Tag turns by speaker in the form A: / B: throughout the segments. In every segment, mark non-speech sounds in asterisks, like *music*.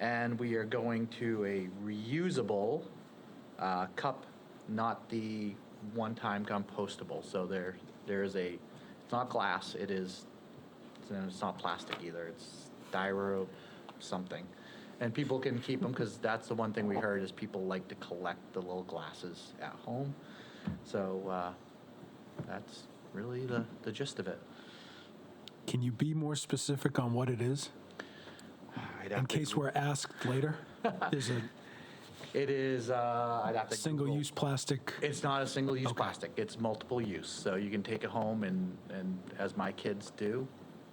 A: And we are going to a reusable uh, cup, not the one-time compostable. So there, there is a, it's not glass, it is, it's- and it's not plastic either, it's styro something. And people can keep them, because that's the one thing we heard, is people like to collect the little glasses at home. So uh, that's really the, the gist of it.
B: Can you be more specific on what it is? In case we're
A: *laughs*
B: asked later, there's a
A: It is, uh, I'd have to.
B: single
A: Google.
B: use plastic.
A: It's not a single-use plastic. It's multiple use. So you can take it home and, and as my kids do,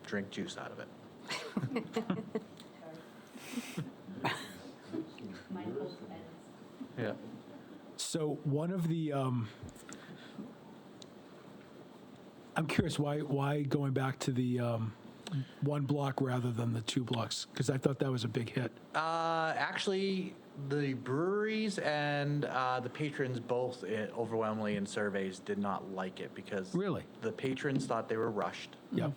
A: drink juice out of it.
C: Mindful pets.
A: Yeah.
B: So one of the, um, I'm curious why why going back to the um, one block rather than the two blocks because I thought that was a big hit.
A: Uh, actually, the breweries and uh, the patrons both eh, overwhelmingly in surveys did not like it because
B: Really?
A: the patrons thought they were rushed,
B: Yeah,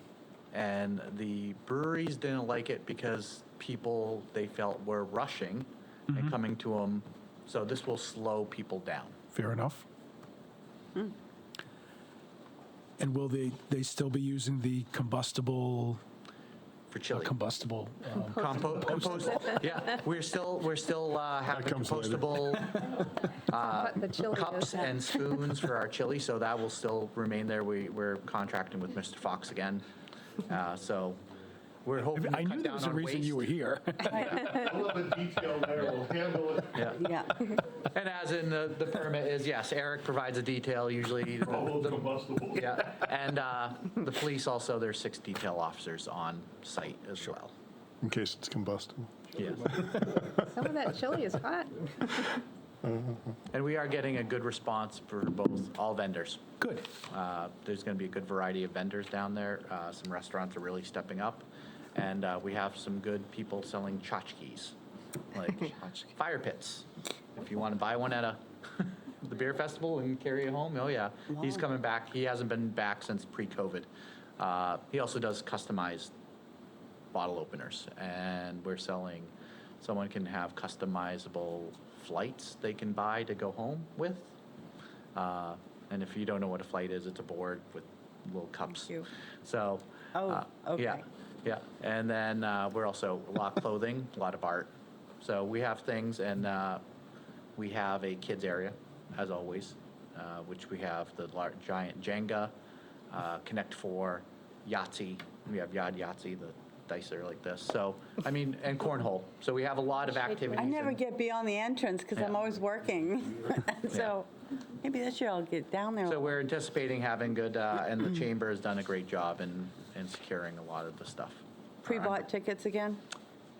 A: and the breweries didn't like it because people they felt were rushing
B: Mm-hmm.
A: and coming to them. So this will slow people down.
B: fair enough. Mm. And will they they still be using the combustible Oh,
A: For chili.
B: combustible? Um,
A: Compo- compost. yeah, we're still we're still uh, having
D: comes later.
A: compostable
E: But the chili is.
A: cups and spoons for our chili, so that will still remain there. We we're contracting with Mr. Fox again, uh, so we're hoping. to
B: I
A: cut
B: knew there was
A: down
B: a
A: on
B: reason you were
A: waste.
B: here.
D: A little bit detailed there, we'll handle it.
A: Yeah.
F: Yeah.
A: And as in the, the permit is yes, Eric provides a detail
B: *laughs*
A: usually. the-
B: Oh,
D: All
A: the-
D: combustible.
A: yeah, *laughs* and uh, the police also there's six detail officers on site as well.
G: in case it's combustible.
A: Yeah.
E: *laughs* Some of that chili is hot.
A: And we are getting a good response for both, all vendors.
B: Good.
A: Uh, There's going to be a good variety of vendors down there. Uh, Some restaurants are really stepping up. And uh, we have some good people selling tchotchkes, like fire pits. If you want to buy one at a, *laughs* the beer festival and carry it home, oh yeah. He's
F: Wow.
A: coming back. He hasn't been back since pre-COVID. Uh, He also does customized bottle openers, and we're selling. Someone can have customizable flights they can buy to go home with. Uh, and if you don't know what a flight is, it's a board with little cups.
F: Thank you.
A: So.
F: Oh,
A: uh, Yeah,
F: okay.
A: yeah. And then uh, we're also a lot of clothing, a lot of art. So we have things, and uh, we have a kids area, as always, uh, which we have the large, giant Jenga, uh, Connect Four, Yahtzee. We have Yad Yahtzee, the dice that are like this. So I mean, and cornhole. So we have a lot of activities.
F: I never
A: and-
F: get beyond the entrance because I'm
A: Yeah.
F: always working. *laughs* so maybe this year I'll get down there.
A: So we're anticipating having good, uh,
F: *clears throat*
A: and the chamber has done a great job in, in securing a lot of the stuff.
F: Pre-bought tickets again?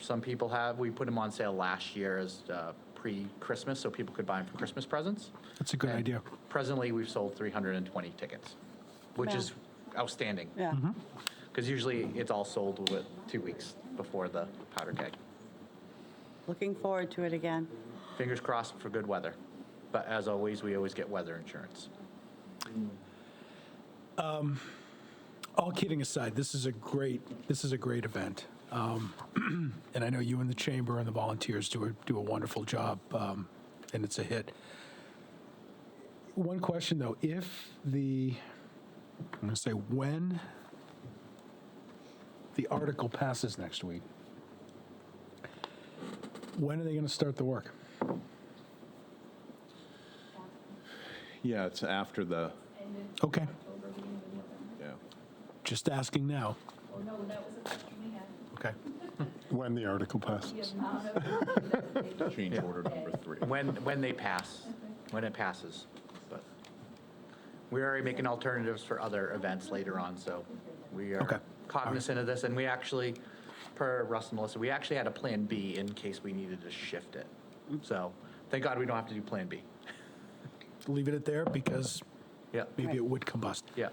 A: Some people have, we put them on sale last year as uh, pre-Christmas, so people could buy them for Christmas presents.
B: *laughs* That's a good
A: And
B: idea.
A: Presently, we've sold 320 tickets, which
F: Wow.
A: is outstanding.
F: Yeah.
A: Because usually it's all sold with two weeks before the powder keg.
F: Looking forward to it again.
A: Fingers crossed for good weather. But as always, we always get weather insurance.
B: all kidding aside, this is a great this is a great event, um, *clears throat* and I know you and the chamber and the volunteers do a, do a wonderful job, um, and it's a hit. One question though, if the I'm going to say when the article passes next week, when are they going to start the work?
H: Yeah, it's after the,
B: Okay,
H: yeah.
B: just asking now.
C: Oh, no, that was a question we had.
B: Okay,
G: When the article passes.
C: The amount of-
H: Change order number three.
A: When, when they pass, when it passes. But we're already making alternatives for other events later on, so we
B: Okay.
A: are cognizant of this. And we actually, per Russ and Melissa, we actually had a Plan B in case we needed to shift it. So thank God we don't have to do Plan B.
B: leave it at there because
A: Yeah,
B: maybe it would combust.
A: yeah.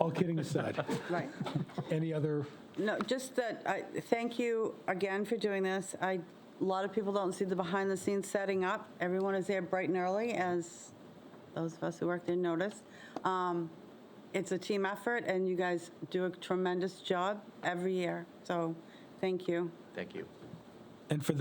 B: All kidding aside,
F: Right.
B: any other
F: No, just that, I, thank you again for doing this. I, a lot of people don't see the behind-the-scenes setting up. Everyone is there bright and early, as those of us who work there notice. Um, It's a team effort, and you guys do a tremendous job every year, so thank you.
A: Thank you.
B: and for